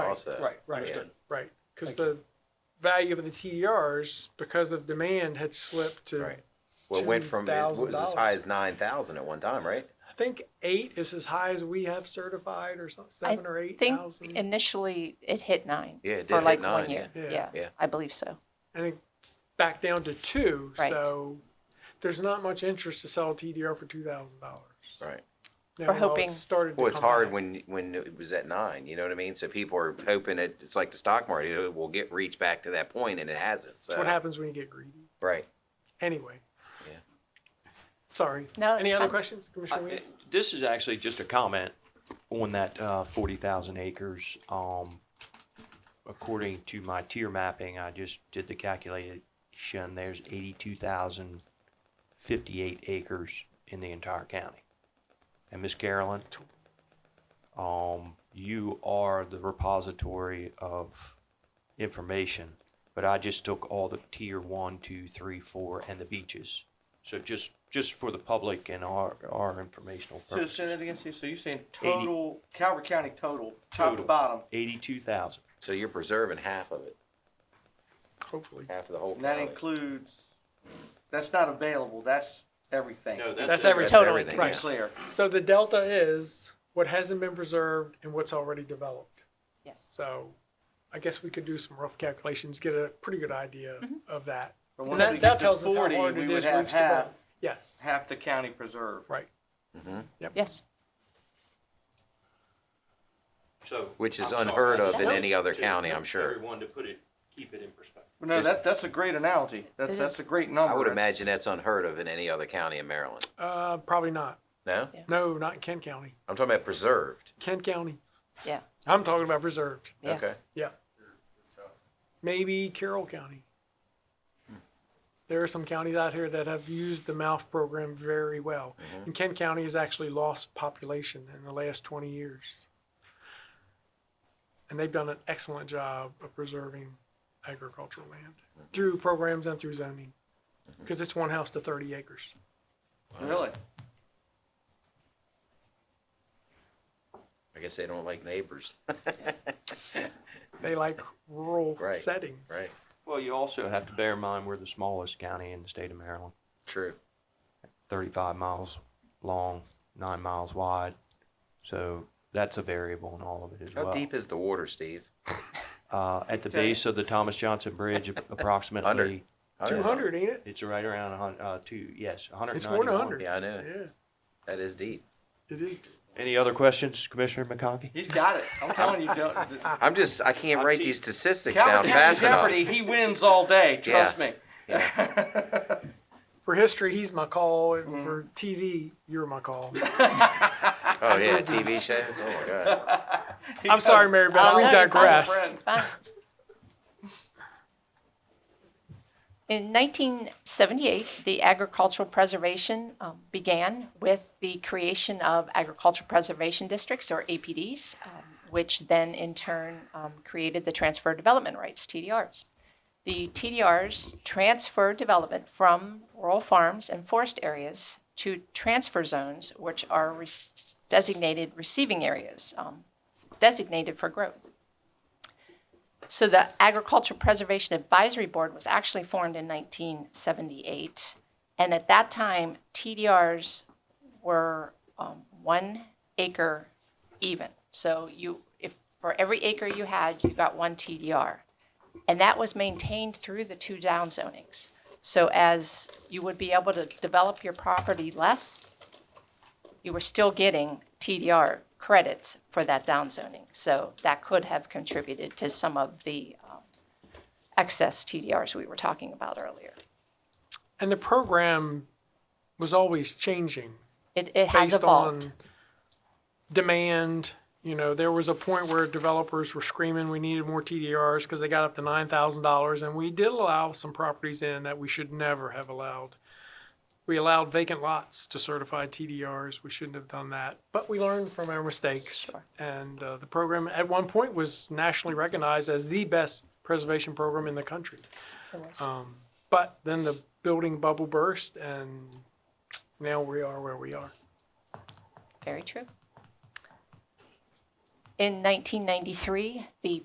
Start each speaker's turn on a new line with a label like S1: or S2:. S1: also.
S2: Right, right,
S1: Yeah.
S2: understood.
S3: Right, because
S2: Thank you.
S3: the value of the TDRs, because of demand, had slipped to,
S1: Right. Well, it went from, it was as
S3: $2,000.
S1: high as nine thousand at one time, right?
S3: I think eight is as high as we have certified or something, seven or eight
S4: think
S3: thousand.
S4: initially it hit nine
S1: Yeah, it
S4: for
S1: did
S4: like
S1: hit
S4: one
S1: nine,
S4: year.
S3: yeah. Yeah.
S1: Yeah.
S4: I believe so.
S3: I think it's back down to two,
S4: Right.
S3: so there's not much interest to sell a TDR for two thousand dollars.
S1: Right.
S4: We're hoping-
S3: Started to
S1: Well, it's
S3: come
S1: hard
S3: back.
S1: when, when it was at nine, you know what I mean? So people are hoping it, it's like the stock market, it will get, reach back to that point and it hasn't,
S3: That's what
S1: so.
S3: happens when you get greedy.
S1: Right.
S3: Anyway.
S1: Yeah.
S3: Sorry.
S4: No,
S3: Any
S4: it's
S3: other
S4: fine.
S3: questions, Commissioner Williams?
S5: This is actually just a comment on that uh, 40,000 acres. Um, According to my tier mapping, I just did the calculation, there's 82,058 acres in the entire county. And Miss Carolyn, um, you are the repository of information, but I just took all the tier one, two, three, four, and the beaches. So just, just for the public and our, our informational
S6: So
S5: purposes.
S6: say that again, Steve. So you're saying total Calvert County total, top to
S5: Total.
S6: bottom,
S5: Eighty-two thousand.
S1: So you're preserving half of it,
S3: Hopefully.
S1: half of the whole
S6: and that
S1: county.
S6: includes. That's not available. That's everything.
S3: That's every,
S1: That's
S4: Total.
S1: everything,
S3: Right.
S1: yeah.
S6: clear.
S3: so the delta is what hasn't been preserved and what's already developed.
S4: Yes.
S3: So I guess we could do some rough calculations, get a pretty good idea of that.
S6: But
S3: And
S6: once we
S3: that,
S6: get
S3: that
S6: to
S3: tells us how
S6: 40,
S3: hard
S6: we
S3: it
S6: would
S3: is
S6: have
S3: reach the bottom.
S6: half.
S3: Yes,
S6: Half the county preserved.
S3: right.
S4: Yes.
S5: So.
S1: Which is
S5: I'm sorry,
S1: unheard
S5: I
S1: of
S5: just
S1: in
S5: wanted
S1: any other
S5: to-
S1: county, I'm sure.
S5: Everyone to put it, keep it in perspective.
S6: Well, No, that that's a great analogy. That's
S4: It
S6: that's
S4: is.
S6: a great number.
S1: I would
S6: That's-
S1: imagine that's unheard of in any other county in Maryland.
S3: Uh, probably not.
S1: No?
S4: Yeah.
S3: No, not Kent County.
S1: I'm talking about preserved.
S3: Kent County.
S4: Yeah.
S3: I'm talking about preserved.
S4: Yes.
S1: Okay.
S3: Yeah. Maybe Carroll County. There are some counties out here that have used the MALF program very well.
S1: Mm-hmm.
S3: And Kent County has actually lost population in the last 20 years. And they've done an excellent job of preserving agricultural land
S1: Mm-hmm.
S3: through programs and through zoning. Because it's one house to 30 acres.
S6: Really?
S1: I guess they don't like neighbors.
S3: They like rural
S1: Right,
S3: settings.
S1: Right.
S5: Well, you also have to bear in mind, we're the smallest county in the state of Maryland,
S1: True.
S5: thirty-five miles long, nine miles wide. So that's a variable in all of it as
S1: How
S5: well.
S1: deep is the water, Steve?
S5: Uh, at the base of the Thomas Johnson Bridge, approximately,
S3: 200, ain't it?
S5: it's right around a hun, uh, two, yes, hundred
S3: It's
S5: and
S3: more than
S5: ninety-one.
S3: 100.
S1: Yeah, I know.
S3: Yeah,
S1: That is deep.
S3: it is.
S5: Any other questions, Commissioner McConkey?
S6: He's got it. I'm telling you. don't- Calvert
S1: I'm just, I can't write these statistics down
S6: County
S1: fast enough.
S6: Jeopardy. He wins all day. Trust
S1: Yeah.
S6: me.
S3: For history, he's my call. and For TV, you're my call.
S1: Oh, yeah, TV shows? Oh, my God.
S3: I'm sorry, Mary Beth.
S4: I'll
S3: We
S4: let you find a
S3: digress.
S4: Fine. In 1978, the agricultural preservation um, began with the creation of agricultural preservation districts, or APDs, um, which then in turn um, created the transfer of development rights, TDRs. The TDRs transfer development from rural farms and forest areas to transfer zones, which are re- designated receiving areas, um, designated for growth. So the Agricultural Preservation Advisory Board was actually formed in 1978. And at that time, TDRs were um, one acre even. So you, if, for every acre you had, you got one TDR. And that was maintained through the two down zonings. So as you would be able to develop your property less, you were still getting TDR credits for that downzoning. So that could have contributed to some of the um, excess TDRs we were talking about earlier.
S3: And the program was always changing
S4: It, it has
S3: based
S4: evolved.
S3: on demand. You know, there was a point where developers were screaming we needed more TDRs because they got up to nine thousand dollars, and we did allow some properties in that we should never have allowed. We allowed vacant lots to certify TDRs. We shouldn't have done that, but we learned from our mistakes. And uh, the program at one point was nationally recognized as the best preservation program in the country. Um, but then the building bubble burst, and now we are where we are.
S4: Very true. In 1993, the